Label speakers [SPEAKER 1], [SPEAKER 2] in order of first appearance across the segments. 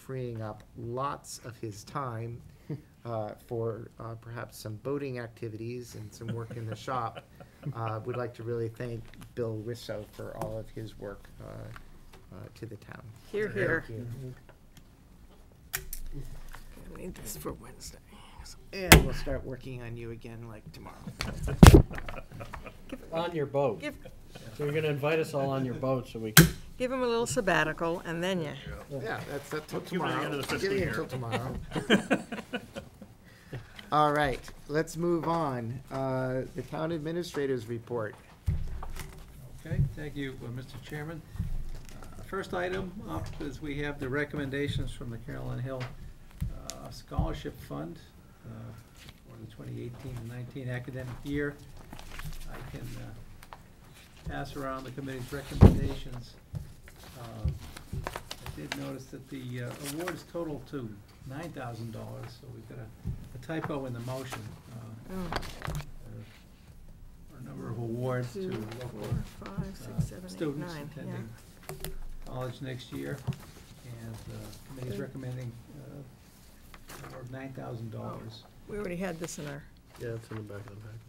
[SPEAKER 1] freeing up lots of his time uh, for uh, perhaps some boating activities and some work in the shop. Uh, Would like to really thank Bill Wisso for all of his work uh, uh, to the town.
[SPEAKER 2] Here, here.
[SPEAKER 1] Thank you.
[SPEAKER 2] I need this for Wednesday.
[SPEAKER 1] And we'll start working on you again like tomorrow.
[SPEAKER 3] On your boat.
[SPEAKER 2] Give,
[SPEAKER 3] So you're gonna invite us all on your boat so we can.
[SPEAKER 2] give him a little sabbatical and then you,
[SPEAKER 1] Yeah, that's, that's till
[SPEAKER 4] give it the
[SPEAKER 1] tomorrow.
[SPEAKER 4] end of the
[SPEAKER 1] Give
[SPEAKER 4] fiscal
[SPEAKER 1] it
[SPEAKER 4] year.
[SPEAKER 1] until tomorrow.
[SPEAKER 3] um,
[SPEAKER 1] All right, let's move on. Uh, The town administrators report.
[SPEAKER 5] Okay, thank you, uh, Mr. Chairman. Uh, First item up is we have the recommendations from the Carolyn Hill uh, Scholarship Fund uh, for the 2018-19 academic year. I can uh, pass around the committee's recommendations. Uh, I did notice that the uh, awards total to $9,000, so we've got a- a typo in the motion. uh,
[SPEAKER 2] oh,
[SPEAKER 5] for- for A number of awards to
[SPEAKER 2] Two,
[SPEAKER 5] local
[SPEAKER 2] four, five,
[SPEAKER 5] uh,
[SPEAKER 2] six, seven, eight,
[SPEAKER 5] students
[SPEAKER 2] nine, yeah.
[SPEAKER 5] attending college next year. And the committee's
[SPEAKER 2] Good.
[SPEAKER 5] recommending uh, award nine thousand dollars.
[SPEAKER 2] We already had this in our,
[SPEAKER 4] Yeah, it's in the back of the packet.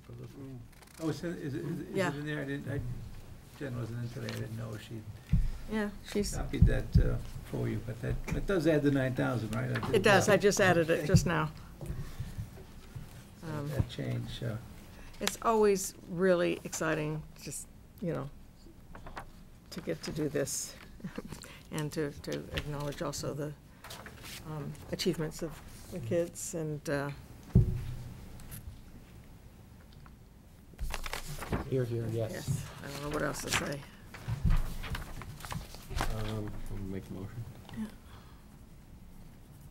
[SPEAKER 5] Oh, is it, is it, is it
[SPEAKER 2] Yeah.
[SPEAKER 5] in there? I didn't, I, Jen wasn't in today, I didn't know if she
[SPEAKER 2] yeah, she's,
[SPEAKER 5] copied that uh, for you, but that, that does add the nine thousand, right? I
[SPEAKER 2] it
[SPEAKER 5] did
[SPEAKER 2] does, I
[SPEAKER 5] that-
[SPEAKER 2] just added it just now. Um,
[SPEAKER 5] That change, uh,
[SPEAKER 2] It's always really exciting, just, you know, to get to do this and to, to acknowledge also the um, achievements of the kids and, uh,
[SPEAKER 1] Here, here, yes.
[SPEAKER 2] yes, I don't know what else to say.
[SPEAKER 3] Um, I'll make the motion.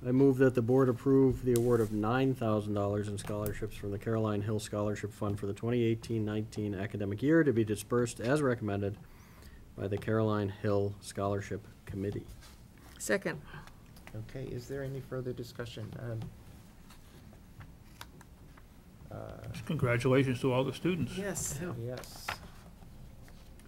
[SPEAKER 3] I move that the board approve the award of nine thousand dollars in scholarships from the Caroline Hill Scholarship Fund for the 2018-19 academic year to be dispersed as recommended by the Caroline Hill Scholarship Committee.
[SPEAKER 2] Second,
[SPEAKER 1] Okay, is there any further discussion? Um, uh,
[SPEAKER 4] Congratulations to all the students.
[SPEAKER 2] yes.
[SPEAKER 1] Yes.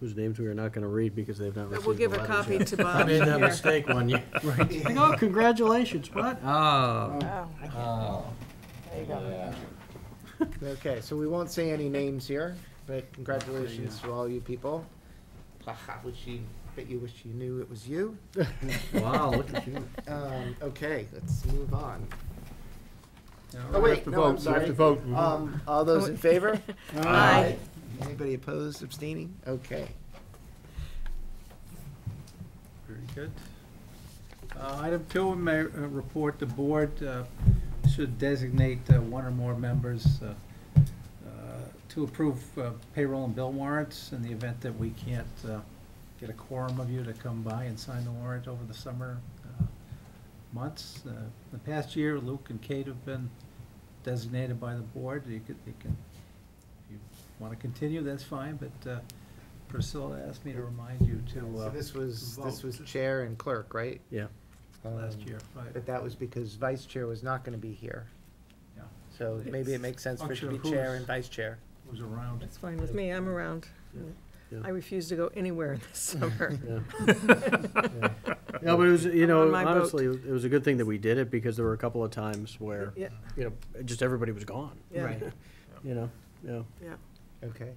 [SPEAKER 3] Whose names we are not gonna read because they've not
[SPEAKER 2] But
[SPEAKER 3] received
[SPEAKER 2] We'll give
[SPEAKER 3] the
[SPEAKER 2] a
[SPEAKER 3] letters
[SPEAKER 2] copy
[SPEAKER 3] yet.
[SPEAKER 2] to
[SPEAKER 3] I
[SPEAKER 2] Bob
[SPEAKER 3] made that
[SPEAKER 2] here.
[SPEAKER 3] mistake one year. Like, Oh, congratulations, what? Oh.
[SPEAKER 2] Oh,
[SPEAKER 3] Oh.
[SPEAKER 2] There you go.
[SPEAKER 1] Okay, so we won't say any names here, but congratulations to all you people. Haha, wish you, bet you wish you knew it was you.
[SPEAKER 3] Wow, look at you.
[SPEAKER 1] Um, okay, let's move on.
[SPEAKER 5] now
[SPEAKER 1] Oh,
[SPEAKER 5] we're
[SPEAKER 1] wait, no, I'm sorry. Um, all those in favor?
[SPEAKER 2] Aye.
[SPEAKER 1] Anybody opposed, abstaining? Okay.
[SPEAKER 5] Very good. Uh, Item two, in my uh, report, the board uh, should designate uh, one or more members uh, uh, to approve uh, payroll and bill warrants in the event that we can't uh, get a quorum of you to come by and sign the warrant over the summer uh, months. Uh, The past year, Luke and Kate have been designated by the board. You could, you can, if you want to continue, that's fine, but uh, Priscilla asked me to remind you to.
[SPEAKER 1] So
[SPEAKER 5] uh,
[SPEAKER 1] this was, this was
[SPEAKER 5] Vote.
[SPEAKER 1] chair and clerk, right?
[SPEAKER 3] Yeah.
[SPEAKER 5] last
[SPEAKER 1] Um,
[SPEAKER 5] year, right?
[SPEAKER 1] But that was because vice chair was not gonna be here.
[SPEAKER 5] Yeah.
[SPEAKER 1] So maybe it makes sense for it to be
[SPEAKER 5] Function of
[SPEAKER 1] chair
[SPEAKER 5] who's-
[SPEAKER 1] and vice chair.
[SPEAKER 5] was around.
[SPEAKER 2] That's fine with me, I'm around.
[SPEAKER 3] Yeah.
[SPEAKER 2] I refuse to go anywhere in the summer.
[SPEAKER 3] Yeah. No, but it was, you
[SPEAKER 2] I'm Uh, on
[SPEAKER 3] know,
[SPEAKER 2] my boat.
[SPEAKER 3] honestly, it was a good thing that we did it because there were a couple of times where,
[SPEAKER 2] Yeah,
[SPEAKER 3] you know, just everybody was gone,
[SPEAKER 2] yeah,
[SPEAKER 3] you know, yeah.
[SPEAKER 2] yeah.
[SPEAKER 1] Okay.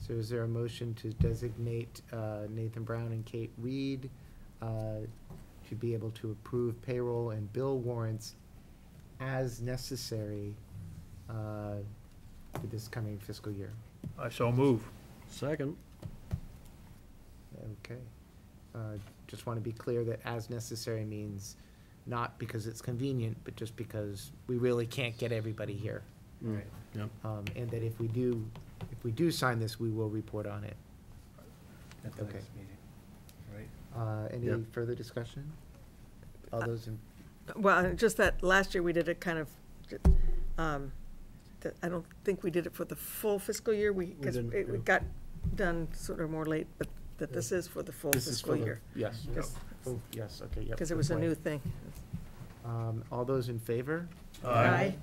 [SPEAKER 1] So is there a motion to designate uh, Nathan Brown and Kate Reed uh, to be able to approve payroll and bill warrants as necessary uh, for this coming fiscal year?
[SPEAKER 4] I so move.
[SPEAKER 3] Second,
[SPEAKER 1] Okay. Uh, Just want to be clear that as necessary means not because it's convenient, but just because we really can't get everybody here.
[SPEAKER 3] Mm, yep.
[SPEAKER 1] Um, And that if we do, if we do sign this, we will report on it.
[SPEAKER 5] At the
[SPEAKER 1] Okay.
[SPEAKER 5] next meeting, right?
[SPEAKER 1] Uh, Any
[SPEAKER 3] Yep.
[SPEAKER 1] further discussion? All
[SPEAKER 2] Uh,
[SPEAKER 1] those in,
[SPEAKER 2] Well, uh, just that, last year we did it kind of, um, that- I don't think we did it for the full fiscal year, we, because
[SPEAKER 3] didn't, yeah.
[SPEAKER 2] it got done sort of more late, but that this is for the full
[SPEAKER 1] this is
[SPEAKER 2] fiscal
[SPEAKER 1] for the-
[SPEAKER 2] year.
[SPEAKER 1] Yes,
[SPEAKER 2] Because
[SPEAKER 1] oh, yes, okay, yep.
[SPEAKER 2] because it
[SPEAKER 1] good
[SPEAKER 2] was a
[SPEAKER 1] point.
[SPEAKER 2] new thing.
[SPEAKER 1] Um, all those in favor?
[SPEAKER 2] Aye.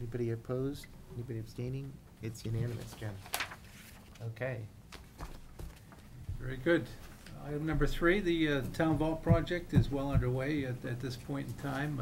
[SPEAKER 1] Anybody opposed? Anybody abstaining? It's unanimous, Jen. Okay.
[SPEAKER 5] Very good. Uh, Item number three, the uh, town vault project is well underway at, at this point in time.